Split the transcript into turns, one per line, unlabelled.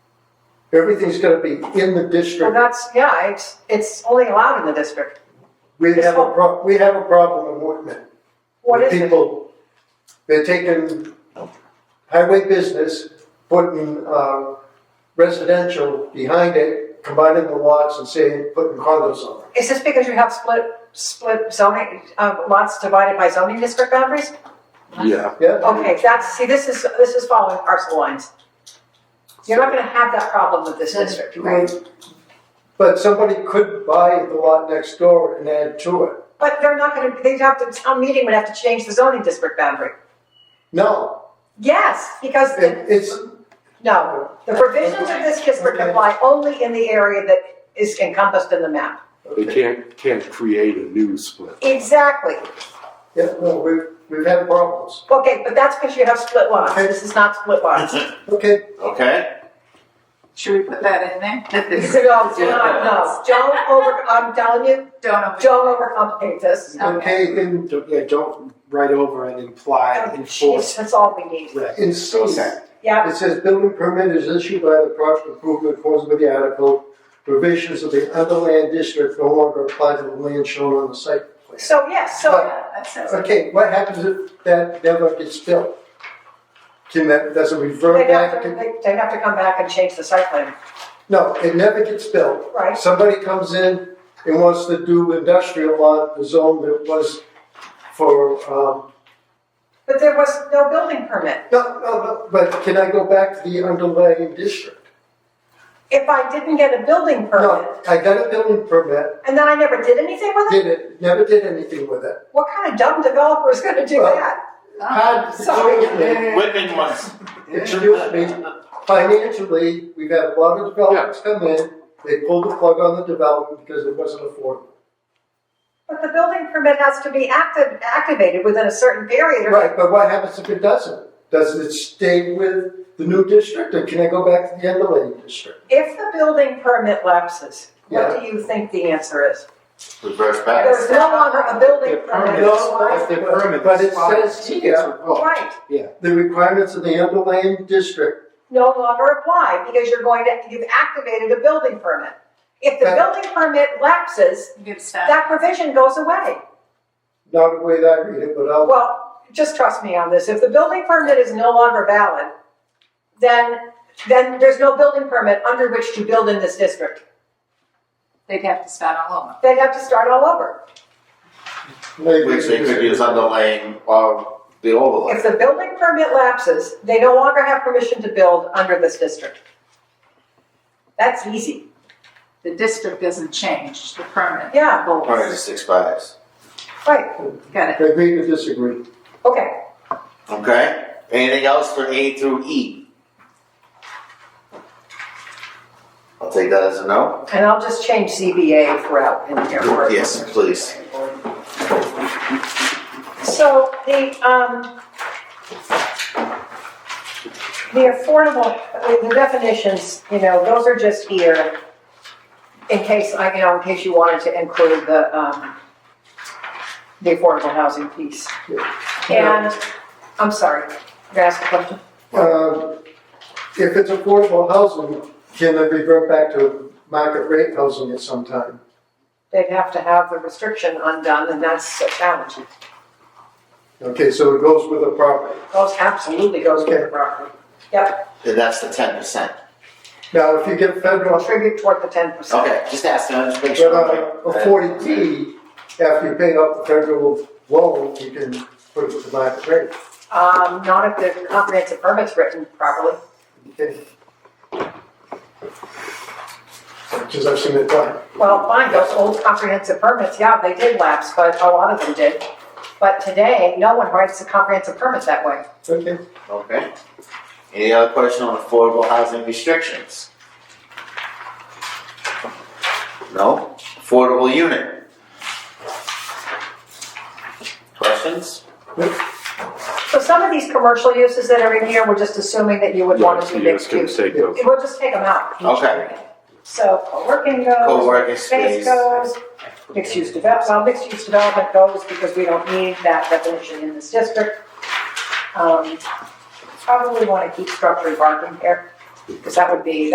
Everything's gonna be in the
Well,
district.
that's, yeah, it's, it's only allowed in the district.
We have a pro, we have a problem in Whitman.
What
with
is it?
People, they're taking highway business, putting, um, residential behind it, combining the lots and saying, putting condos on it.
Is this because you have split, split zoning, uh, lots divided by zoning district boundaries?
Yeah,
Yeah?
Okay, that's, see, this is, this is following parcel lines. You're not gonna have that problem with this district.
Right. But somebody could buy the lot next door and add to it.
But they're not gonna, they'd have to, town meeting would have to change the zoning district boundary.
No,
Yes, because, the-
it, it's,
no, the provisions of this district apply only in the area that is encompassed in the map.
they
okay.
can't, can't create a new split.
Exactly.
yeah, no, we've, we've had problems.
Okay, but that's because you have split lots. This is not split lots.
Okay,
Okay.
Should we put that in there? That
You
this-
said, "Oh, do not- no, don't over, I'm telling you,
Don't over-
don't overcomplicate this.
okay, in,
Don't- Yeah, don't write over and imply,
Oh, Jeez,
enforce.
that's all we need.
Right.
in C,
Yeah,
It says building permit is issued by the project approval in accordance with the article. Provisions of the other land district no longer apply to the land shown on the site plan.
so, yes, so,
Yeah, that sounds-
Okay, what happens if that never gets built? Can that, does it revert
they'd have
back?
to,
to-
they- they'd have to come back and change the site plan,
No, it never gets built.
right?
Somebody comes in and wants to do industrial on the zone that was for, um,
But there was no building permit.
no, no, no, but can I go back to the underlying district?
If I didn't get a
No,
building permit,
I got a building permit,
and then I never did anything with it,
did it, never did anything with it.
what kind of dumb developer is gonna do
Well,
that?
Had the children
Whitman was.
introduced me, financially, we've had a lot of developments come in, they pulled the plug on the development because it wasn't affordable.
But the building permit has to be active, activated within a certain period. or-
Right, but what happens if it doesn't? Does it stay with the new district, or can I go back to the underlying district?
If the building permit lapses,
Yeah.
what do you think the answer is?
Reverse
There's no longer a building
Their
permit.
permits,
Why?
that's their permits.
But it says here-
Right,
The requirements of the underlying district,
no longer apply because you're going to, you've activated a building permit. If the
Right.
building permit lapses,
Good stuff.
that provision goes away.
not the way that I read it, but I'll,
Well, just trust me on this, if the building permit is no longer valid, then, then there's no building permit under which to build in this district.
They'd have to start all over.
They'd have to start all over.
maybe.
Which they could use underlaying of the overlay.
If the building permit lapses, they no longer have permission to build under this district. That's easy,
The district doesn't change, the permit.
Yeah.
holds.
Permit just expires.
right,
Got it.
Agree to disagree.
okay.
Okay? Anything else for A through E? I'll take that as a no.
And I'll just change CBA throughout in here. where-
Yes, please.
So the, um, the affordable, the definitions, you know, those are just here in case, I, you know, in case you wanted to include the, um, the affordable housing piece. And, I'm sorry, you asked a question?
Um, If it's affordable housing, can it revert back to market rate housing at some time?
They'd have to have the restriction undone and that's a challenge.
Okay, so it goes with the property.
Goes, absolutely goes with the property.
And that's the ten percent.
Now, if you get federal,
Contribute toward the ten percent.
Okay, just asking, just make
but
sure.
on a forty D, after you pay off the federal loan, you can put it to market rate.
Um, not if the comprehensive permit's written properly.
Okay. Because I've seen it done.
Well, fine, those old comprehensive permits, yeah, they did lapse, but a lot of them did. But today, no one writes a comprehensive permit that way.
Okay.
Okay. Any other question on affordable housing restrictions? No? Affordable unit? Questions?
So some of these commercial uses that are in here, we're just assuming that you would want to do
Yeah, it's
mixed
gonna
use.
take those.
We'll just take them out.
Okay.
So co-working goes,
Co-working
Oh, space
space.
goes, mixed use develop, well, mixed use development goes because we don't need that definition in this district. Um, Probably want to keep structured parking here, because that would be,